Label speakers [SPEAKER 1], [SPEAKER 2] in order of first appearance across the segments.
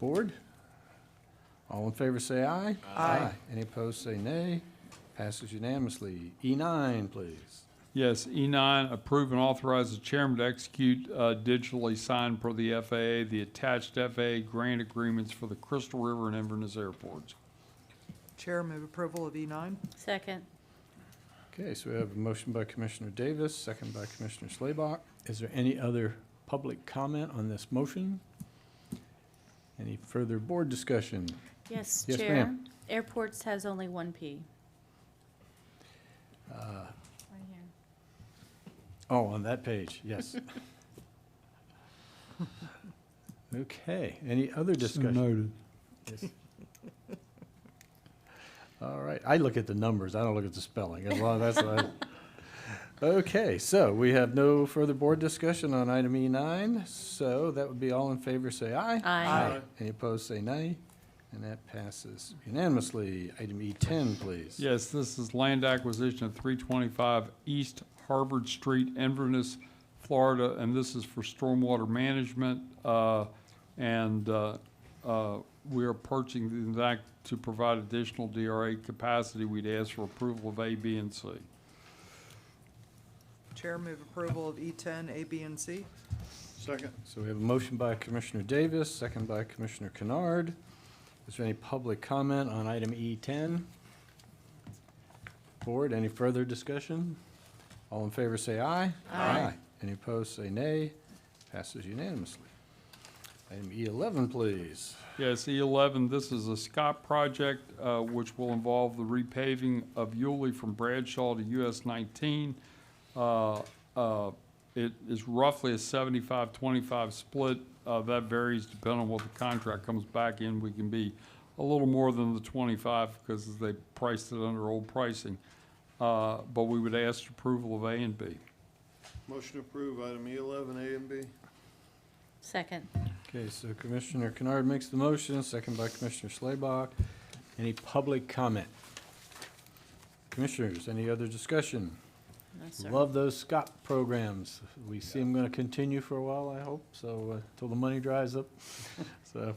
[SPEAKER 1] Board? All in favor, say aye. Aye. Any opposed, say nay. Passes unanimously. E9, please.
[SPEAKER 2] Yes, E9, approve and authorize the chairman to execute uh, digitally signed per the FAA, the attached FAA grant agreements for the Crystal River and Inverness airports.
[SPEAKER 3] Chair, move approval of E E9.
[SPEAKER 4] Second.
[SPEAKER 1] Okay, so we have a motion by Commissioner Davis, second by Commissioner Slaybach. Is there any other public comment on this motion? Any further board discussion?
[SPEAKER 4] Yes,
[SPEAKER 1] Yes,
[SPEAKER 4] Chair.
[SPEAKER 1] ma'am.
[SPEAKER 4] Airports has only one P.
[SPEAKER 1] Uh,
[SPEAKER 4] Right here.
[SPEAKER 1] Oh, on that page, yes. Okay, any other discussion?
[SPEAKER 2] Noted.
[SPEAKER 1] Yes. All right, I look at the numbers, I don't look at the spelling, as long as that's what I- Okay, so we have no further board discussion on item E nine, so that would be all in favor, say aye.
[SPEAKER 4] Aye. Aye.
[SPEAKER 1] Any opposed, say nay, and that passes unanimously. Item E ten, please.
[SPEAKER 2] Yes, this is land acquisition of 325 East Harvard Street, Inverness, Florida, and this is for stormwater management. uh, And uh, uh, we are purchasing that to provide additional DRA capacity. We'd ask for approval of A, B, and C.
[SPEAKER 3] Chair, move approval of E10, A, B, and C.
[SPEAKER 1] So we have a motion by Commissioner Davis, second by Commissioner Kennard. Is there any public comment on item E10? Board, any further discussion? All in favor, say aye. Aye. Any opposed, say nay. Passes unanimously. Item E11, please.
[SPEAKER 2] Yes, E11, E this is a Scott project, uh, which will involve the repaving of Yulee from Bradshaw to US 19. Uh, uh, It is roughly a 75-25 split. Uh, That varies depending on what the contract comes back in. We can be a little more than the 25 because they priced it under old pricing. Uh, But we would ask approval of A and B.
[SPEAKER 5] Motion to approve item E eleven, A and B.
[SPEAKER 4] Second.
[SPEAKER 1] Okay, so Commissioner Kennard makes the motion, second by Commissioner Schlebach. Any public comment? Commissioners, any other discussion?
[SPEAKER 4] No, sir.
[SPEAKER 1] Love those Scott programs. We see them going to continue for a while, I hope, so, uh, till the money dries up. So,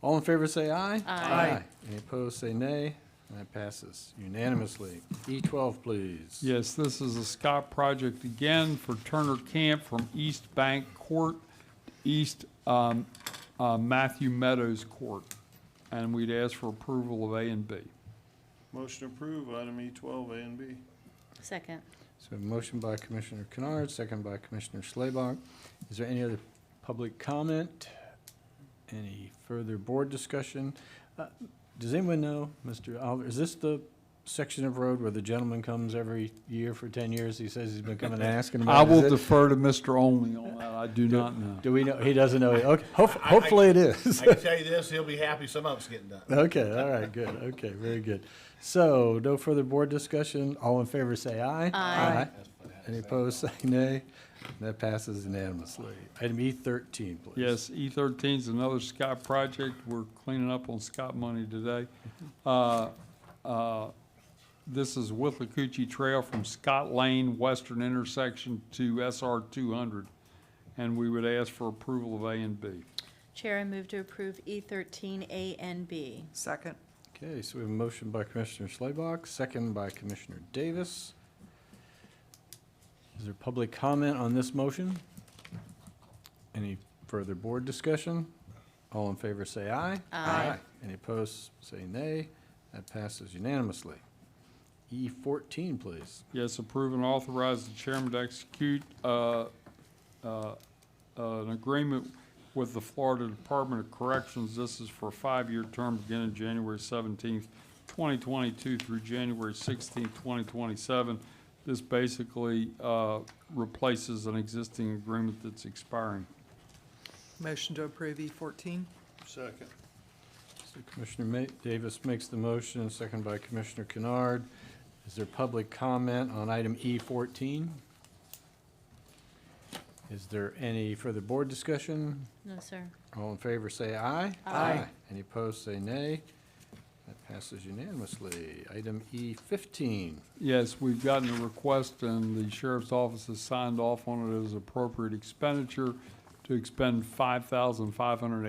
[SPEAKER 1] all in favor, say aye.
[SPEAKER 4] Aye.
[SPEAKER 1] Any opposed, say nay, and that passes unanimously. E twelve, please.
[SPEAKER 2] Yes, this is a Scott project again for Turner Camp from East Bank Court, to East um, uh, Matthew Meadows Court. And we'd ask for approval of A and B.
[SPEAKER 5] Motion to approve item E twelve, A and B.
[SPEAKER 4] Second.
[SPEAKER 1] So, a motion by Commissioner Kennard, second by Commissioner Schlebach. Is there any other public comment? Any further board discussion? Uh, Does anyone know, Mr. Oliver, is this the section of road where the gentleman comes every year for ten years? He says he's been coming and asking about.
[SPEAKER 2] I
[SPEAKER 1] it.
[SPEAKER 2] will
[SPEAKER 1] Is it-
[SPEAKER 2] defer to Mr. Only on that. I do not know.
[SPEAKER 1] Do we know, he doesn't know, okay, hope-
[SPEAKER 6] I- I-
[SPEAKER 1] hopefully it is.
[SPEAKER 6] I can tell you this, he'll be happy some of it's getting done.
[SPEAKER 1] Okay, all right, good, okay, very good. So, no further board discussion, all in favor say aye.
[SPEAKER 4] Aye.
[SPEAKER 1] Any opposed, say nay. That passes unanimously. Item E thirteen, please.
[SPEAKER 2] Yes, E thirteen is another Scott project. We're cleaning up on Scott money today. Uh, uh, This is Withlacoochee Trail from Scott Lane, western intersection to SR two hundred. And we would ask for approval of A and B.
[SPEAKER 4] Chair, I move to approve E thirteen A and B.
[SPEAKER 3] Second.
[SPEAKER 1] Okay, so we have a motion by Commissioner Schleybach, second by Commissioner Davis. Is there public comment on this motion? Any further board discussion? All in favor, say aye.
[SPEAKER 4] Aye.
[SPEAKER 1] Any opposed, say nay. That passes unanimously. E fourteen, please.
[SPEAKER 2] Yes, approve and authorize the chairman to execute uh, uh, an agreement with the Florida Department of Corrections. This is for a five-year term beginning January seventeenth, twenty twenty-two through January sixteenth, twenty twenty-seven. This basically uh, replaces an existing agreement that's expiring.
[SPEAKER 3] Motion to approve E E14.
[SPEAKER 5] Second.
[SPEAKER 1] So Commissioner Ma- Davis makes the motion, second by Commissioner Kennard. Is there public comment on item E fourteen? Is there any further board discussion?
[SPEAKER 4] No, sir.
[SPEAKER 1] All in favor, say aye.
[SPEAKER 4] Aye.
[SPEAKER 1] Any opposed, say nay. That passes unanimously. Item E fifteen.
[SPEAKER 2] Yes, we've gotten a request, and the sheriff's office has signed off on it as appropriate expenditure to expend five thousand five hundred